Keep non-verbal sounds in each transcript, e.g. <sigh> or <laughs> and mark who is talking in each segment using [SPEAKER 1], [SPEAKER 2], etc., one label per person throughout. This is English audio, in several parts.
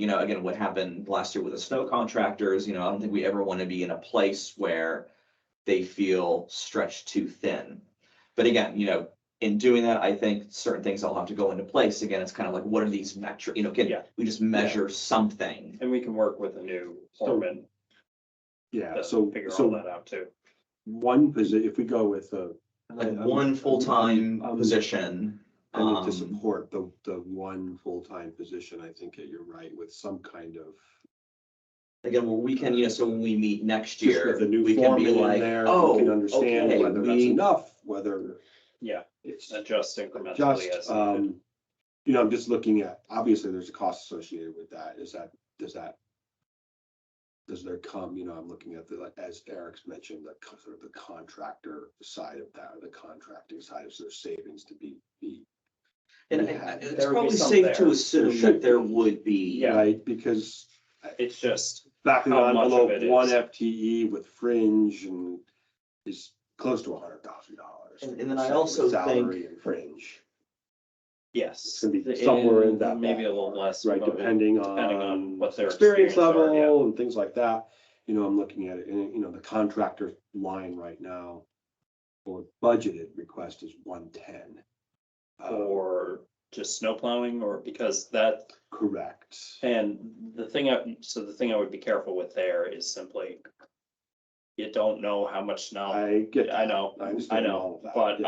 [SPEAKER 1] you know, again, what happened last year with the snow contractors, you know, I don't think we ever want to be in a place where they feel stretched too thin. But again, you know, in doing that, I think certain things all have to go into place. Again, it's kind of like, what are these metric, you know,
[SPEAKER 2] Yeah.
[SPEAKER 1] can we just measure something?
[SPEAKER 2] And we can work with a new foreman
[SPEAKER 3] Yeah,
[SPEAKER 2] to
[SPEAKER 3] so,
[SPEAKER 2] figure all
[SPEAKER 3] so
[SPEAKER 2] that out too.
[SPEAKER 3] one position, if we go with uh
[SPEAKER 1] Like
[SPEAKER 3] I'm-
[SPEAKER 1] one full-time
[SPEAKER 3] I'm- I'm-
[SPEAKER 1] position.
[SPEAKER 3] I need
[SPEAKER 1] um,
[SPEAKER 3] to support the, the one full-time position, I think that you're right, with some kind of.
[SPEAKER 1] Again, well, we can, you know, so when we meet next
[SPEAKER 3] just
[SPEAKER 1] year,
[SPEAKER 3] With the new
[SPEAKER 1] we can
[SPEAKER 3] foreman
[SPEAKER 1] be
[SPEAKER 3] in
[SPEAKER 1] like,
[SPEAKER 3] there,
[SPEAKER 1] oh,
[SPEAKER 3] we can understand
[SPEAKER 1] okay,
[SPEAKER 3] whether that's
[SPEAKER 1] we-
[SPEAKER 3] enough, whether
[SPEAKER 2] Yeah,
[SPEAKER 3] it's
[SPEAKER 2] adjust incrementally as.
[SPEAKER 3] just, um, you know, I'm just looking at, obviously, there's a cost associated with that. Is that, does that? Does there come, you know, I'm looking at the, like, as Eric's mentioned, the co- sort of the contractor side of that, the contracting side, is there savings to be, be
[SPEAKER 1] and
[SPEAKER 3] we
[SPEAKER 1] I-
[SPEAKER 3] have-
[SPEAKER 1] it's
[SPEAKER 2] there would
[SPEAKER 1] probably
[SPEAKER 2] be some
[SPEAKER 1] safe to
[SPEAKER 2] there.
[SPEAKER 1] assume
[SPEAKER 3] There
[SPEAKER 1] that
[SPEAKER 3] should
[SPEAKER 1] there
[SPEAKER 3] be.
[SPEAKER 1] would be.
[SPEAKER 2] Yeah.
[SPEAKER 3] Right, because
[SPEAKER 2] It's just,
[SPEAKER 3] back of the
[SPEAKER 2] How much of
[SPEAKER 3] envelope,
[SPEAKER 2] it
[SPEAKER 3] one
[SPEAKER 2] is.
[SPEAKER 3] FTE with fringe and is close to a hundred thousand dollars.
[SPEAKER 1] And- and then I also think-
[SPEAKER 3] Salary and fringe,
[SPEAKER 2] yes.
[SPEAKER 3] gonna be somewhere in that
[SPEAKER 2] Maybe a
[SPEAKER 3] ballpark,
[SPEAKER 2] little less.
[SPEAKER 3] right,
[SPEAKER 2] but
[SPEAKER 3] depending on.
[SPEAKER 2] depending on what their
[SPEAKER 3] Experience
[SPEAKER 2] experience are, yeah.
[SPEAKER 3] level and things like that, you know, I'm looking at it, and you know, the contractor line right now. For budgeted request is one ten.
[SPEAKER 2] uh,
[SPEAKER 3] Uh,
[SPEAKER 2] Or just snow plowing or because that,
[SPEAKER 3] Correct,
[SPEAKER 2] and the thing I, so the thing I would be careful with there is simply. You don't know how much snow,
[SPEAKER 3] I get.
[SPEAKER 2] I
[SPEAKER 3] that.
[SPEAKER 2] know,
[SPEAKER 3] I
[SPEAKER 2] I
[SPEAKER 3] understand all
[SPEAKER 2] know,
[SPEAKER 3] of that.
[SPEAKER 2] but,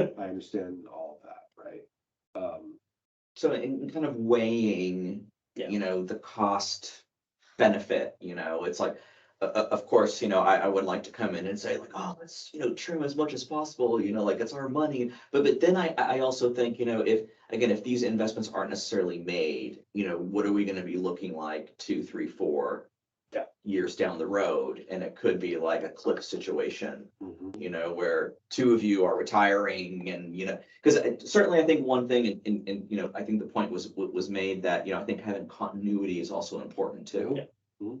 [SPEAKER 3] yes.
[SPEAKER 2] um,
[SPEAKER 3] <laughs> I understand all of that, right? Um,
[SPEAKER 1] So in kind of weighing,
[SPEAKER 2] Yeah.
[SPEAKER 1] you know, the cost benefit, you know, it's like, uh, of course, you know, I, I would like to come in and say like, oh, let's, you know, trim as much as possible, you know, like it's our money. But, but then I, I I also think, you know, if, again, if these investments aren't necessarily made, you know, what are we gonna be looking like two, three, four
[SPEAKER 2] Yeah.
[SPEAKER 1] years down the road? And it could be like a cliff situation
[SPEAKER 3] mhm.
[SPEAKER 1] you know, where two of you are retiring and, you know, because certainly I think one thing and, and, and, you know, I think the point was, wa- was made that, you know, I think having continuity is also important too.
[SPEAKER 2] Yeah.
[SPEAKER 3] Mhm.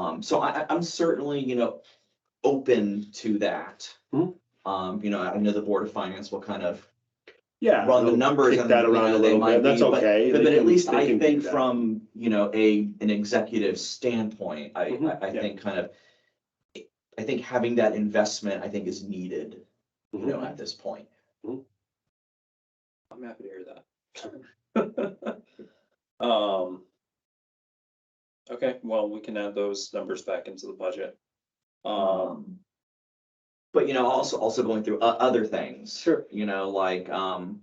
[SPEAKER 1] Um, so I, I- I'm certainly, you know, open to that.
[SPEAKER 3] Mhm.
[SPEAKER 1] Um, you know, I know the Board of Finance will kind of
[SPEAKER 3] Yeah.
[SPEAKER 1] run the
[SPEAKER 3] they'll
[SPEAKER 1] numbers.
[SPEAKER 3] kick
[SPEAKER 1] and,
[SPEAKER 3] that
[SPEAKER 1] you
[SPEAKER 3] around
[SPEAKER 1] know,
[SPEAKER 3] a
[SPEAKER 1] they
[SPEAKER 3] little
[SPEAKER 1] might
[SPEAKER 3] bit. That's
[SPEAKER 1] be, but-
[SPEAKER 3] okay.
[SPEAKER 1] But
[SPEAKER 3] They
[SPEAKER 1] but at
[SPEAKER 3] can-
[SPEAKER 1] least
[SPEAKER 3] they
[SPEAKER 1] I
[SPEAKER 3] can do
[SPEAKER 1] think
[SPEAKER 3] that.
[SPEAKER 1] from, you know, a, an executive standpoint, I,
[SPEAKER 3] Mhm,
[SPEAKER 1] I, I
[SPEAKER 2] yeah.
[SPEAKER 1] think kind of. I think having that investment, I think is needed, you know,
[SPEAKER 3] Mhm.
[SPEAKER 1] at this point.
[SPEAKER 2] I'm happy to hear that. <laughs> Um. Okay, well, we can add those numbers back into the budget. Um,
[SPEAKER 1] Um. But you know, also, also going through o- other things.
[SPEAKER 2] Sure.
[SPEAKER 1] You know, like, um,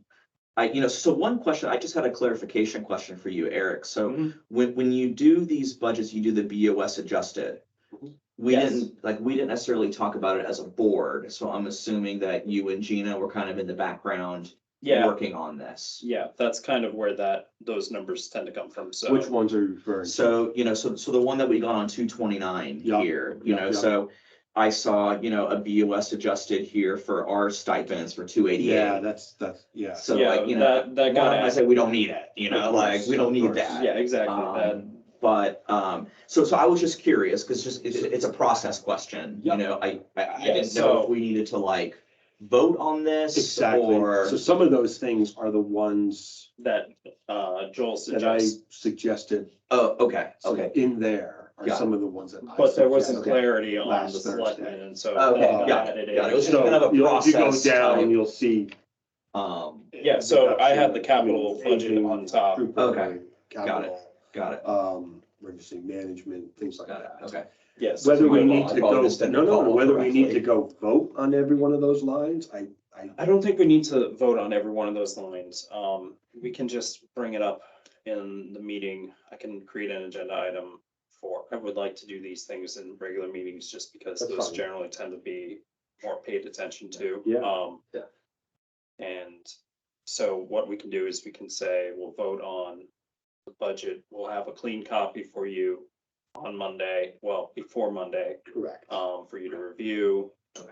[SPEAKER 1] I, you know, so one question, I just had a clarification question for you, Eric. So
[SPEAKER 2] Mhm.
[SPEAKER 1] when, when you do these budgets, you do the BOS adjusted.
[SPEAKER 3] Mhm.
[SPEAKER 1] We
[SPEAKER 2] Mm-hmm. Yes.
[SPEAKER 1] didn't, like, we didn't necessarily talk about it as a board, so I'm assuming that you and Gina were kind of in the background.
[SPEAKER 2] yeah,
[SPEAKER 1] Working on this.
[SPEAKER 2] yeah, that's kind of where that, those numbers tend to come from, so.
[SPEAKER 3] Which ones are you referring? to?
[SPEAKER 1] So, you know, so, so the one that we got on two twenty-nine
[SPEAKER 3] Yeah,
[SPEAKER 1] here, you
[SPEAKER 3] yeah,
[SPEAKER 1] know,
[SPEAKER 3] yeah.
[SPEAKER 1] so I saw, you know, a BOS adjusted here for our stipends for two
[SPEAKER 3] Yeah,
[SPEAKER 1] eighty-eight.
[SPEAKER 3] that's, that's, yeah.
[SPEAKER 1] So
[SPEAKER 2] Yeah,
[SPEAKER 1] like, you know,
[SPEAKER 2] that, that got
[SPEAKER 1] one, I
[SPEAKER 2] added,
[SPEAKER 1] said, we don't need it, you know,
[SPEAKER 3] Of
[SPEAKER 1] like,
[SPEAKER 3] course,
[SPEAKER 1] we don't
[SPEAKER 3] of
[SPEAKER 1] need
[SPEAKER 3] course.
[SPEAKER 1] that.
[SPEAKER 2] yeah, exactly, that,
[SPEAKER 1] Um, But, um, so, so I was just curious, because just, it's, it's a process question, you
[SPEAKER 3] Yeah.
[SPEAKER 1] know, I, I, I
[SPEAKER 2] Yeah,
[SPEAKER 1] didn't know
[SPEAKER 2] so-
[SPEAKER 1] if we needed to like vote on this
[SPEAKER 3] Exactly.
[SPEAKER 1] or.
[SPEAKER 3] So some of those things are the ones
[SPEAKER 2] that, uh, Joel
[SPEAKER 3] that I
[SPEAKER 2] suggests,
[SPEAKER 3] suggested.
[SPEAKER 1] Oh, okay,
[SPEAKER 3] So
[SPEAKER 1] okay,
[SPEAKER 3] In there are
[SPEAKER 1] Got it.
[SPEAKER 3] some of the ones that. I
[SPEAKER 2] but there wasn't
[SPEAKER 3] suggested.
[SPEAKER 2] clarity on
[SPEAKER 3] last
[SPEAKER 2] the
[SPEAKER 3] Thursday.
[SPEAKER 2] selectmen, and so.
[SPEAKER 1] Okay,
[SPEAKER 2] that got
[SPEAKER 1] got it,
[SPEAKER 2] added in.
[SPEAKER 1] got it. It was just
[SPEAKER 3] So
[SPEAKER 1] kind of a
[SPEAKER 3] you know, if you go
[SPEAKER 1] process type.
[SPEAKER 3] down, you'll see.
[SPEAKER 1] um,
[SPEAKER 2] Yeah, so I had the
[SPEAKER 3] reduction,
[SPEAKER 2] capital budget on top.
[SPEAKER 3] group
[SPEAKER 1] Okay,
[SPEAKER 3] overlay,
[SPEAKER 1] got it.
[SPEAKER 3] capital,
[SPEAKER 1] got it,
[SPEAKER 3] Um, emergency management, things like
[SPEAKER 1] got it,
[SPEAKER 3] that.
[SPEAKER 1] okay.
[SPEAKER 2] Yes.
[SPEAKER 3] Whether we
[SPEAKER 1] Sorry,
[SPEAKER 3] need
[SPEAKER 1] I
[SPEAKER 3] to
[SPEAKER 1] probably
[SPEAKER 3] go,
[SPEAKER 1] just didn't
[SPEAKER 3] no, no,
[SPEAKER 1] follow
[SPEAKER 3] whether we need to
[SPEAKER 1] correctly.
[SPEAKER 3] go vote on every one of those lines, I, I,
[SPEAKER 2] I don't think we need to vote on every one of those lines. Um, we can just bring it up in the meeting. I can create an agenda item for, I would like to do these things in regular meetings just because
[SPEAKER 3] That's
[SPEAKER 2] those
[SPEAKER 3] fine.
[SPEAKER 2] generally tend to be more paid attention to.
[SPEAKER 3] Yeah.
[SPEAKER 2] Um,
[SPEAKER 1] Yeah.
[SPEAKER 2] And so what we can do is we can say, we'll vote on the budget. We'll have a clean copy for you on Monday, well, before Monday,
[SPEAKER 3] correct.
[SPEAKER 2] um, for you to review.
[SPEAKER 1] Okay.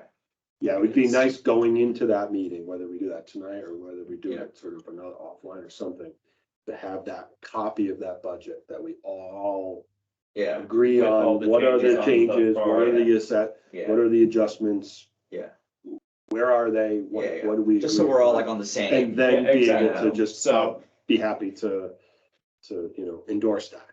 [SPEAKER 3] Yeah, it would be nice going into that meeting, whether we do that tonight or whether we do it sort of another offline or something. To have that copy of that budget that we all
[SPEAKER 1] Yeah,
[SPEAKER 3] agree
[SPEAKER 2] With all
[SPEAKER 3] on,
[SPEAKER 2] the
[SPEAKER 3] what are the
[SPEAKER 2] changes on the
[SPEAKER 3] changes, what are the asset,
[SPEAKER 1] yeah.
[SPEAKER 3] what are the adjustments?
[SPEAKER 1] Yeah.
[SPEAKER 3] Where are they, what,
[SPEAKER 1] Yeah, yeah.
[SPEAKER 3] what do we?
[SPEAKER 1] Just so
[SPEAKER 3] agree
[SPEAKER 1] we're all
[SPEAKER 3] on?
[SPEAKER 1] like on the same.
[SPEAKER 3] And then
[SPEAKER 2] Yeah,
[SPEAKER 3] be able
[SPEAKER 1] exactly.
[SPEAKER 3] to just
[SPEAKER 2] So-
[SPEAKER 3] uh, be happy to to, you know, endorse that.